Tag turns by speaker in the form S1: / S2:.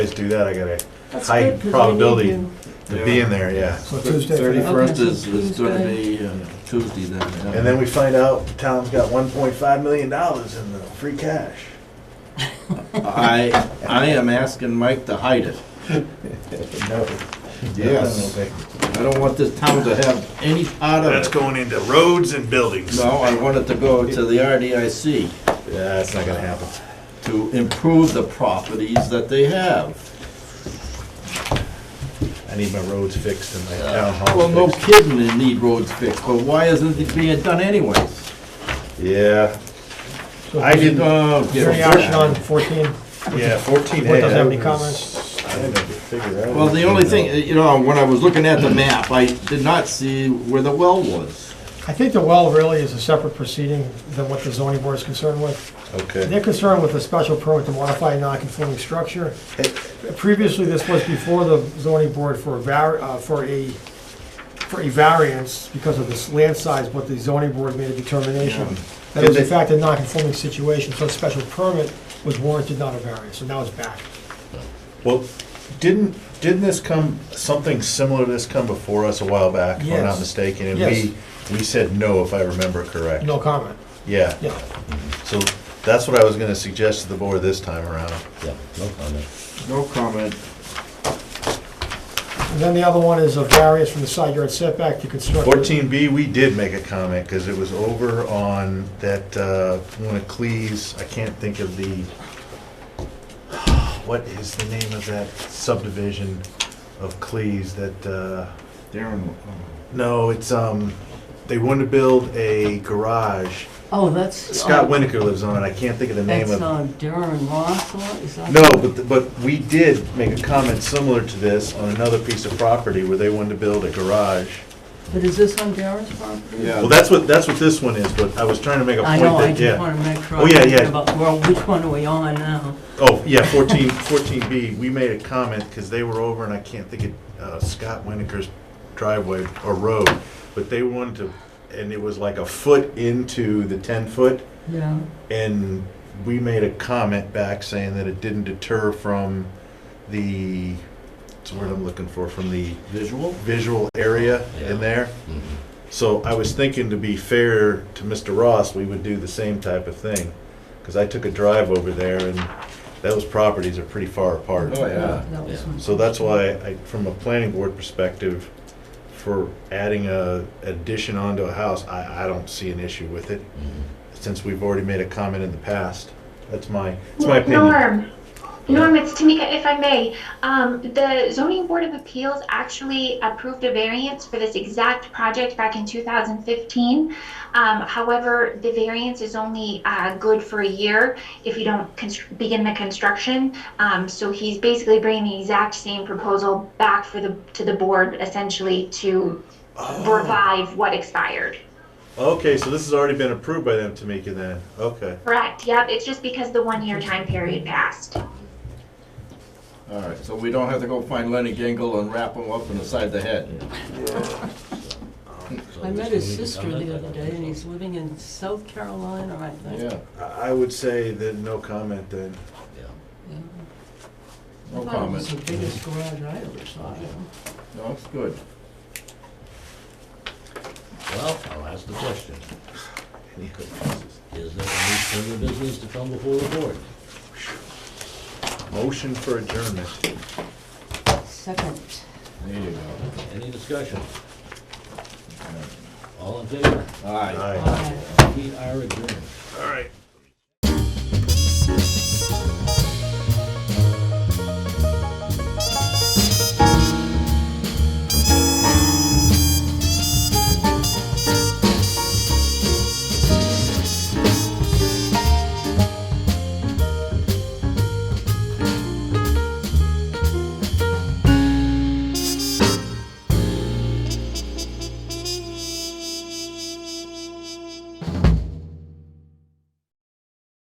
S1: guys do that, I got a
S2: That's
S1: high
S2: good, 'cause we need
S1: probability
S2: you.
S1: to be in there, yeah.
S3: So Tuesday,
S4: Thirty-first
S2: Okay,
S4: is,
S2: so
S4: is gonna
S2: Tuesday.
S4: be uh, Tuesday then. yeah.
S1: And then we find out the town's got one point five million dollars in the free cash.
S4: I, I am asking Mike to hide it.
S1: No.
S4: Yes. I don't want this town to have any part
S1: That's
S4: of it.
S1: going into roads and buildings.
S4: No, I want it to go to the RDIC
S1: Yeah, that's not gonna happen.
S4: to improve the properties that they have.
S1: I need my roads fixed and my town
S4: Well, no
S1: hall fixed.
S4: kidding, they need roads fixed, but why isn't it being done anyways?
S1: Yeah,
S3: so
S1: I didn't,
S4: Oh, get
S3: Any
S4: it.
S3: action on fourteen?
S1: yeah, fourteen A.
S3: What, doesn't have
S1: that
S3: any
S1: was- I didn't figure out.
S4: Well, the only thing, uh, you know, when I was looking at the map, I did not see where the well was.
S3: I think the well really is a separate proceeding than what the zoning board is concerned with.
S1: Okay.
S3: They're concerned with a special permit to modify a non-conforming structure. Previously, this was before the zoning board for a var, uh, for a, for a variance because of this land size, but the zoning board made a determination that it was in fact a non-conforming situation, so a special permit was warranted, not a variance, so now it's back.
S1: Well, didn't, didn't this come, something similar to this come before us a while back, if I'm not
S3: Yes.
S1: mistaken? And
S3: Yes.
S1: we, we said no, if I remember correct.
S3: No comment,
S1: Yeah,
S3: yeah.
S1: so that's what I was gonna suggest to the board this time around.
S5: Yeah, no comment.
S4: No comment.
S3: And then the other one is a variance from the side yard setback to construct.
S1: Fourteen B, we did make a comment, because it was over on that, uh, one of Cleese, I can't think of the, what is the name of that subdivision of Cleese that, uh,
S4: Darren,
S1: no, it's, um, they wanted to build a garage.
S2: Oh, that's.
S1: Scott
S2: uh,
S1: Winokur lives on it, I can't think of the name of.
S2: That's uh, Darren Ross, or is that?
S1: No, but, the- but we did make a comment similar to this on another piece of property where they wanted to build a garage.
S2: But is this on Darren's property?
S4: yeah.
S1: Well, that's what, that's what this one is, but I was trying to make a
S2: I
S1: point
S2: know, I
S1: that,
S2: just
S1: yeah.
S2: wanna make sure.
S1: Oh, yeah,
S2: I'm thinking
S1: yeah.
S2: About, well, which one are we on now?
S1: Oh, yeah, fourteen, fourteen B, we made a comment because they were over and I can't think of uh, Scott Winokur's driveway or road, but they wanted to, and it was like a foot into the ten foot.
S2: Yeah.
S1: And we made a comment back saying that it didn't deter from the, what's the word I'm looking for, from the
S4: Visual?
S1: visual area in there.
S4: Mm-hmm.
S5: Mhm.
S1: So I was thinking to be fair to Mr. Ross, we would do the same type of thing. Because I took a drive over there and those properties are pretty far apart.
S4: Oh, yeah.
S2: That was
S5: Yeah.
S2: my-
S1: So that's why I, from a planning board perspective, for adding a addition onto a house, I, I don't see an issue with it.
S4: Mm-hmm.
S5: Mhm.
S1: Since we've already made a comment in the past. That's my, that's my opinion.
S6: Norm, Norm, it's Tamika, if I may. Um, the zoning board of appeals actually approved a variance for this exact project back in 2015. Um, however, the variance is only, uh, good for a year if you don't constr- begin the construction. Um, so he's basically bringing the exact same proposal back for the, to the board essentially to revive what expired.
S1: Okay, so this has already been approved by them, Tamika, then? Okay.
S6: Correct, yep, it's just because the one-year time period passed.
S4: All right, so we don't have to go find Lenny Gingle and wrap him up in the side of the head.
S5: So
S2: I met
S5: this will
S2: his
S5: need to
S2: sister
S5: comment,
S2: the
S5: I
S2: other
S5: don't
S2: day,
S5: think
S2: and
S5: so.
S2: he's living in South Carolina, I think.
S4: Yeah,
S1: I I would say that no comment then.
S5: Yeah.
S2: Yeah.
S4: no
S2: I thought it was the
S4: comment.
S2: biggest garage I ever saw. you know.
S4: No, it's good.
S5: Well, I'll ask the question. Is there any further business to come before the board?
S1: Motion for adjournment.
S2: Second.
S4: There you go.
S5: Any discussion? All in favor?
S4: All right.
S1: Aye.
S2: Aye.
S5: We are adjourned.
S1: All right.